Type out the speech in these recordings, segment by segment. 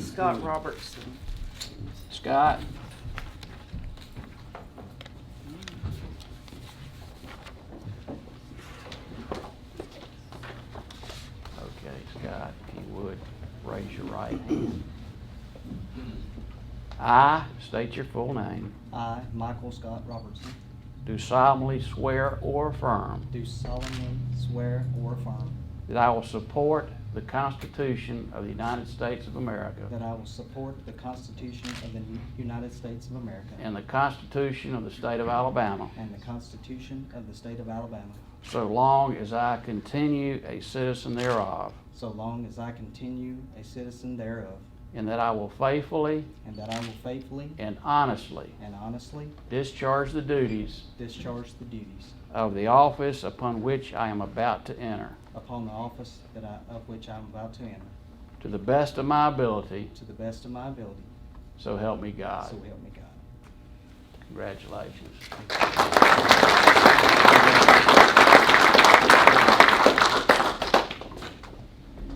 Scott Robertson. Scott? Okay, Scott, if you would, raise your right hand. I state your full name, I, Michael Scott Robertson, do solemnly swear or affirm do solemnly swear or affirm that I will support the Constitution of the United States of America that I will support the Constitution of the U- United States of America and the Constitution of the State of Alabama, and the Constitution of the State of Alabama, so long as I continue a citizen thereof, so long as I continue a citizen thereof, and that I will faithfully and that I will faithfully and honestly and honestly discharge the duties discharge the duties of the office upon which I am about to enter, upon the office that I, of which I am about to enter, to the best of my ability, to the best of my ability, so help me God. so help me God. Congratulations.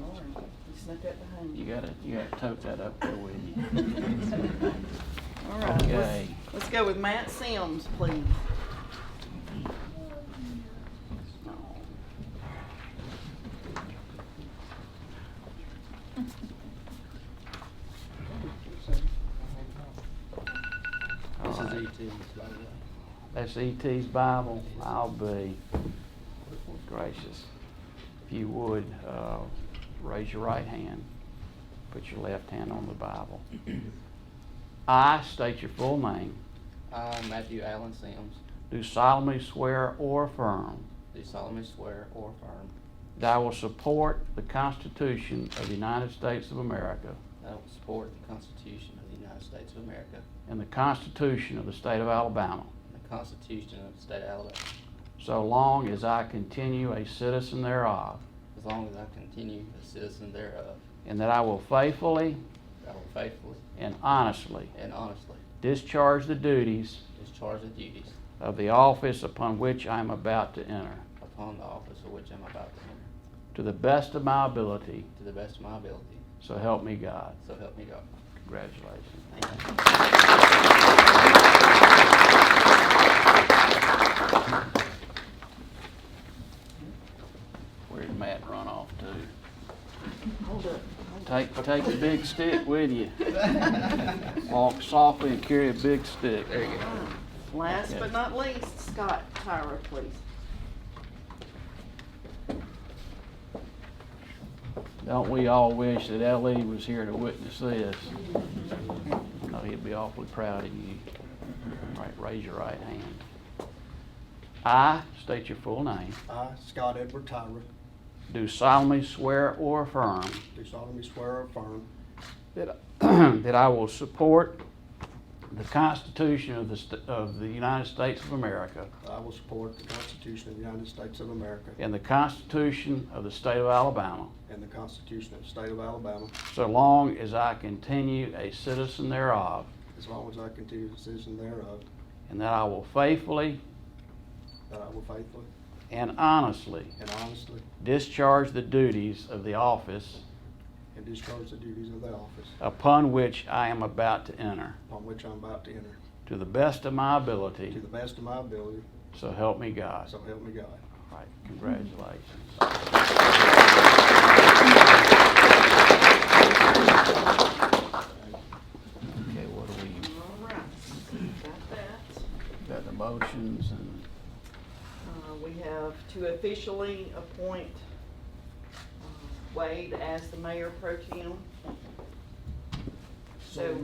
Lord, you snuck that behind You you. gotta, you gotta tote that up there with you. All right, let's, Okay. let's go with Matt Sims, please. All This right. is E E.T., by the way. That's E.T.'s Bible. I'll be gracious. If you would, uh, raise your right hand. Put your left hand on the Bible. I state your full name. I, Uh, Matthew Allen Sims, Do solemnly swear or affirm do solemnly swear or affirm that I will support the Constitution of the United States of America that I will support the Constitution of the United States of America and the Constitution of the State of Alabama, and the Constitution of the State of Alabama, so long as I continue a citizen thereof, as long as I continue a citizen thereof. and that I will faithfully I will faithfully and honestly and honestly discharge the duties discharge the duties of the office upon which I am about to enter, upon the office of which I'm about to enter, to the best of my ability, to the best of my ability, so help me God. so help me God. Congratulations. Thank you. Where'd Matt run off to? Hold up. Take, take a big stick with you. Walk softly and carry a big stick. There you go. Last Okay. but not least, Scott Tyra, please. Don't we all wish that L.E. was here to witness this? I know he'd be awfully proud of you. All right, raise your right hand. I state your full name. I, Scott Edward Tyra, Do solemnly swear or affirm do solemnly swear or affirm that, that I will support the Constitution of the, st- of the United States of America that I will support the Constitution of the United States of America and the Constitution of the State of Alabama, and the Constitution of the State of Alabama, so long as I continue a citizen thereof, as long as I continue a citizen thereof, and that I will faithfully that I will faithfully and honestly and honestly discharge the duties of the office and discharge the duties of the office upon which I am about to enter, upon which I'm about to enter, to the best of my to ability, the best of my ability, so help me God. so help me God. All right, congratulations. Okay, what do we, All right, got that. got the motions and, Uh, We have to officially appoint uh, Wade as the mayor pro tem. So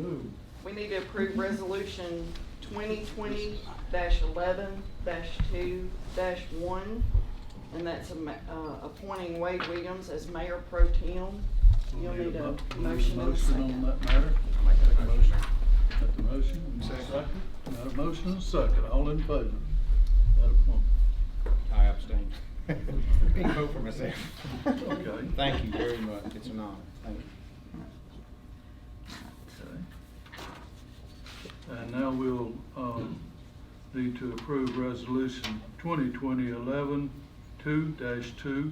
we need to approve resolution twenty twenty eleven two one. And that's a ma- uh, appointing Wade Williams as mayor pro tem. You'll need a motion and a on second. that matter? Make a motion. Got the motion, and second. Got a motion and a second, all in favor? That appointment. I abstain. I can vote for myself. Okay. Thank you very much. It's an honor. Thank you. Okay. And now we'll, um, need to approve resolution twenty twenty eleven two dash two